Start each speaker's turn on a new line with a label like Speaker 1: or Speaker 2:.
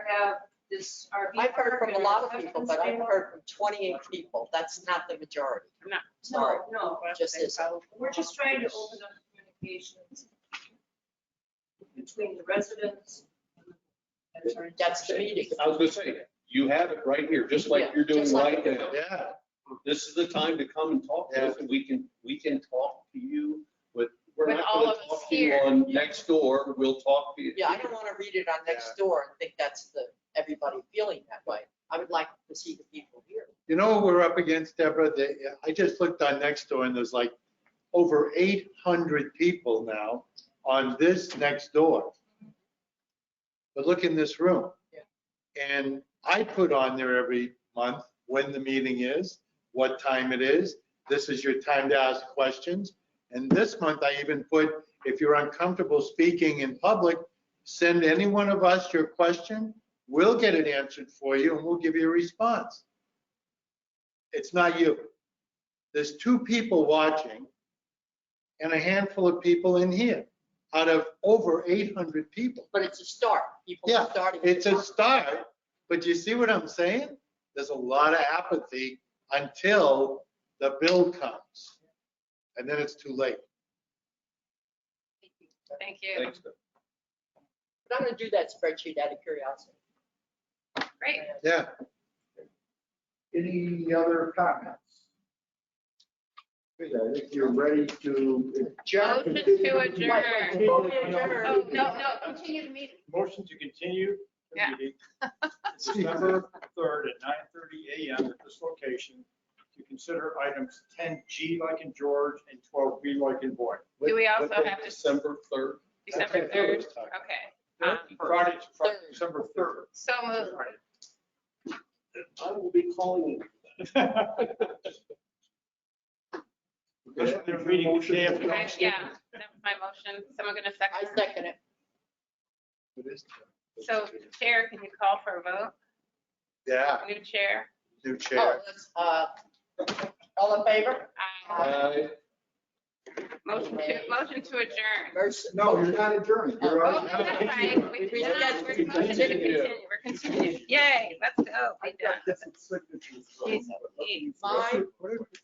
Speaker 1: have this RV.
Speaker 2: I've heard
Speaker 1: park
Speaker 2: from a
Speaker 1: and
Speaker 2: lot of
Speaker 1: reception
Speaker 2: people, but I've
Speaker 1: center.
Speaker 2: heard from 28 people. That's not the majority.
Speaker 3: No.
Speaker 2: Sorry.
Speaker 1: No, no,
Speaker 2: just as-
Speaker 1: we're just trying to open up communications between the residents. and the attorney.
Speaker 2: That's the meeting.
Speaker 4: I was gonna say, you have it right here, just like
Speaker 2: Yeah,
Speaker 4: you're doing
Speaker 2: just like-
Speaker 4: right now.
Speaker 5: Yeah,
Speaker 4: This is the time to come and talk to us, and we can, we can talk to you with, we're
Speaker 3: With
Speaker 4: not
Speaker 3: all
Speaker 4: gonna
Speaker 3: of us
Speaker 4: talk to you
Speaker 3: here.
Speaker 4: on next door, we'll talk to you.
Speaker 2: Yeah, I don't want to read it on next door and think that's the, everybody feeling that way. I would like to see the people here.
Speaker 5: you know, what we're up against Deborah, They- I just looked on next door and there's like over 800 people now on this next door. But look in this room.
Speaker 2: Yeah.
Speaker 5: And I put on there every month when the meeting is, what time it is. This is your time to ask questions. And this month I even put, if you're uncomfortable speaking in public, send any one of us your question. We'll get it answered for you and we'll give you a response it's not you. There's two people watching and a handful of people in here out of over 800 people.
Speaker 2: But it's a start. People are
Speaker 5: Yeah,
Speaker 2: starting. to
Speaker 5: It's a
Speaker 2: talk.
Speaker 5: start, but you see what I'm saying? There's a lot of apathy until the bill comes. And then it's too late.
Speaker 3: Thank you.
Speaker 4: Thanks, Doug.
Speaker 2: But I'm going to do that spreadsheet out of curiosity.
Speaker 3: Great.
Speaker 5: Yeah.
Speaker 6: Any other comments? Good, I think you're ready to.
Speaker 3: Motion to adjourn. Oh,
Speaker 6: adjourn.
Speaker 3: no, no, continue the meeting.
Speaker 7: Motion to continue the
Speaker 3: Yeah.
Speaker 7: meeting to December 3rd at 9:30 a.m. at this location to consider items 10G like in George and 12B like in Boyd.
Speaker 3: Do we also
Speaker 4: What day,
Speaker 3: have to-
Speaker 4: December third.
Speaker 3: December 3rd. Okay. Um,
Speaker 7: Friday, Friday,
Speaker 2: Third.
Speaker 7: December 3rd.
Speaker 3: So moved.
Speaker 4: I will be calling you.
Speaker 7: That's what they're reading the day after.
Speaker 3: I- Yeah, that was my motion. Someone going to
Speaker 2: I
Speaker 3: second?
Speaker 2: second it.
Speaker 3: So Chair, can you call for a vote?
Speaker 5: Yeah,
Speaker 3: New Chair?
Speaker 5: new
Speaker 2: Oh,
Speaker 5: chair.
Speaker 2: that's, uh, All in favor?
Speaker 3: Aye.
Speaker 5: Uh,
Speaker 4: I
Speaker 3: Motion to, motion to adjourn.
Speaker 2: Mercy.
Speaker 6: No, you're not adjourned. You're
Speaker 3: Oh,
Speaker 6: on-
Speaker 3: that's right. We-
Speaker 2: We
Speaker 3: no, no, We're
Speaker 2: continue.
Speaker 3: motion to continue. We're continuing. Yay, let's go.
Speaker 6: I
Speaker 3: We
Speaker 6: got
Speaker 3: done.
Speaker 6: different signatures.
Speaker 3: Jeez, Louise.
Speaker 2: Mine.
Speaker 5: What if-